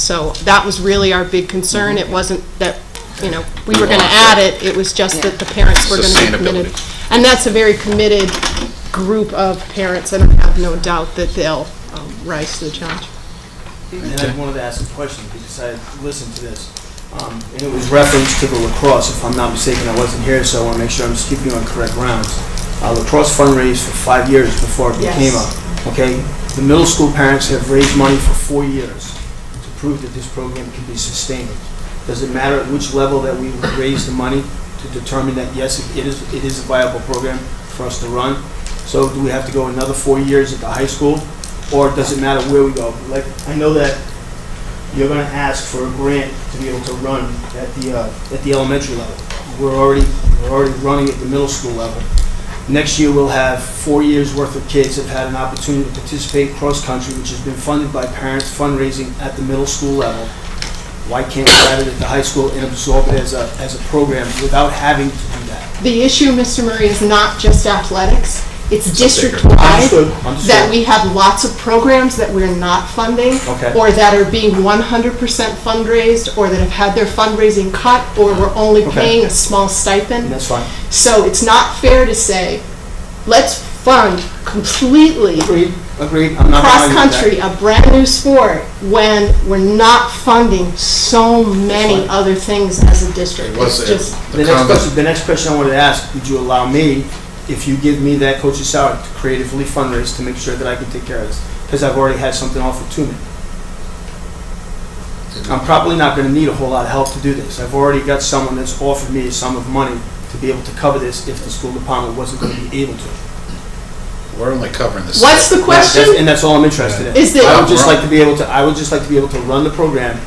So that was really our big concern. It wasn't that, you know, we were going to add it, it was just that the parents were going to be committed. And that's a very committed group of parents, and I have no doubt that they'll um, rise to the challenge. And I wanted to ask a question because I listened to this. Um, and it was reference to the lacrosse, if I'm not mistaken. I wasn't here, so I want to make sure I'm keeping on correct grounds. Uh, lacrosse fundraised for five years before it became Yes. a, okay? The middle school parents have raised money for four years to prove that this program can be sustained. Does it matter at which level that we raise the money to determine that, yes, it is, it is a viable program for us to run? So do we have to go another four years at the high school? or does it matter where we go? Like, I know that you're gonna ask for a grant to be able to run at the, uh, at the elementary level. We're already, we're already running at the middle school level. Next year, we'll have four years' worth of kids have had an opportunity to participate cross-country, which has been funded by parents fundraising at the middle school level. Why can't we add it at the high school and absorb it as a, as a program without having to do that? The issue, Mr. Murray, is not just athletics, it's Understood, district-wide. understood. That we have lots of programs that we're not funding. Okay. Or that are being 100% fundraised, or that have had their fundraising cut, or we're only Okay. paying a small stipend. And that's fine. So it's not fair to say, let's fund completely Agreed, agreed, I'm not arguing with that. cross-country, a brand-new sport, when we're not funding so many Fine. other things as a district. Was It's it- just, the The next comment- question, the next question I wanted to ask, would you allow me, if you give me that coach's salary, to creatively fundraise to make sure that I can take care of this? Because I've already had something offered to me. I'm probably not gonna need a whole lot of help to do this. I've already got someone that's offered me a sum of money to be able to cover this if the school department wasn't gonna be able to. We're only covering the. what's the That's- question? And that's all I'm interested in. Is that- I would just like to be able to, I would just like to be able to run the program.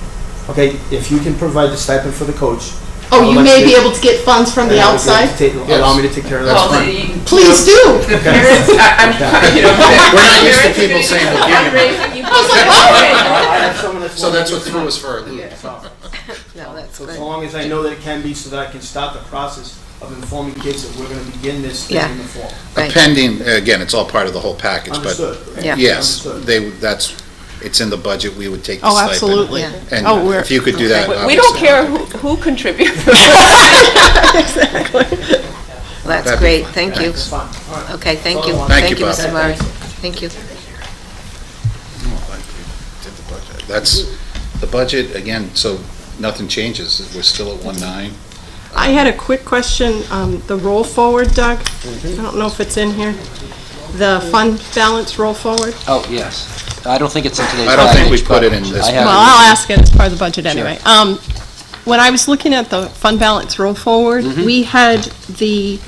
Okay, if you can provide the stipend for the coach. Oh, you may be Let's- able to get funds from the and I'll be able to outside? take- Allow me to take care of that. Well, fine. the- Please do. The parents, I- I'm, you know. We're not used to parents are people gonna saying do we'll give you money. fundraising, you- I have someone that's So that's what willing threw us for a loop. to do it. No, that's So as good. long as I know that it can be, so that I can stop the process of informing kids that we're gonna begin this thing in the fall. Right. Pending, again, it's all part of the whole package, but Understood? Yeah. yes, Understood. they, that's, it's in the budget, we would take the Oh, stipend. absolutely. Yeah. Oh, And we're- if you could do that, We- We don't obviously. care who, who contributes. That's That'd be great, fine. thank you. That's fine. All right. Okay, thank you. Follow on. Thank you, Mr. Bob. Murray. Thank you. Did the budget. That's, the budget, again, so nothing changes, we're still at one nine. I had a quick question, um, the roll forward, Doug. Mm-hmm. I don't know if it's in here. The fund balance roll forward. Oh, yes. I don't think it's in today's I don't think we package, put it but in this I have Well, I'll ask it as part of the budget anyway. Um, When I was looking at the fund balance roll forward, we had the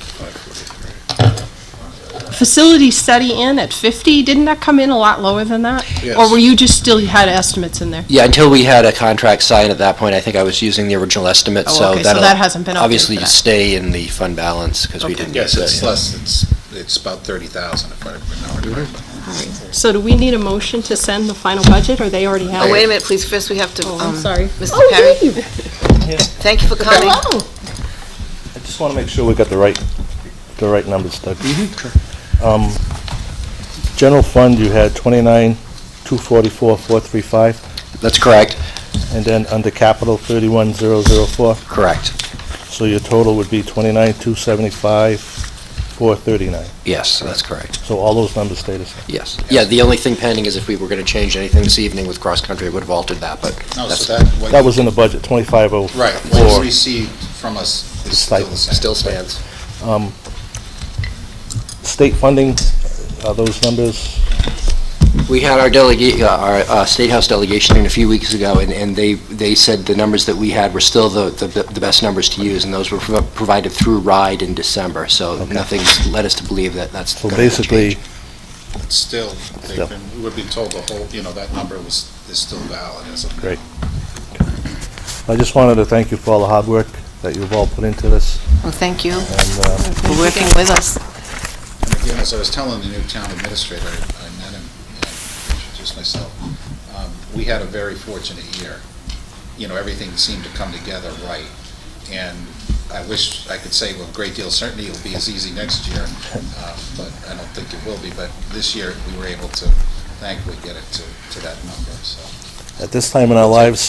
facility study in at 50. Didn't that come in a lot lower than that? Or Yes. were you just still, you had estimates in there? Yeah, until we had a contract signed at that point, I think I was using the original estimate, Oh, so okay, so that'll that hasn't been updated Obviously, for that. stay in the fund balance, because we Okay. didn't. Yes, use it's that. less, it's, it's about thirty thousand if I remember correctly. So do we need a motion to send the final budget, or they already have Oh, it? wait a minute, please, first we have to, Oh, I'm um, sorry. Mr. Oh, Perry, Dave. thank you for coming. Hello. I just want to make sure we got the right, the right numbers, Doug. Um, General fund, you had 29, 244, 435, That's correct, and then under capital, 31004. correct. So your total would be 29, 275, 439. Yes, that's correct, So all those numbers stay the same. yes. Yeah, the only thing pending is if we were going to change anything this evening with cross-country, it would have altered that, but No, that's so that, what That was in the budget, 2504. Right, what you received from us is still the Stipend. same. still stands. Um, State funding, are those numbers? We had our delegate, our uh, State House delegation in a few weeks ago, and- and they, they said the numbers that we had were still the, the the best numbers to use, and those were prov- provided through RIDE in December, so Okay. nothing's led us to believe that that's So going to change. basically, It's still, they've Still. been, we would be told the whole, you know, that number was, is still valid as of now. Great. I just wanted to thank you for all the hard work that you've all put into this, Well, thank you and uh, for working with us. And again, as I was telling the new town administrator, I met him, and I introduced myself, um, we had a very fortunate year. You know, everything seemed to come together right, and I wish I could say with a great deal of certainty it'll be as easy next year, um, but I don't think it will be, but this year, we were able to thankfully get it to, to that number, so. at this time in our lives,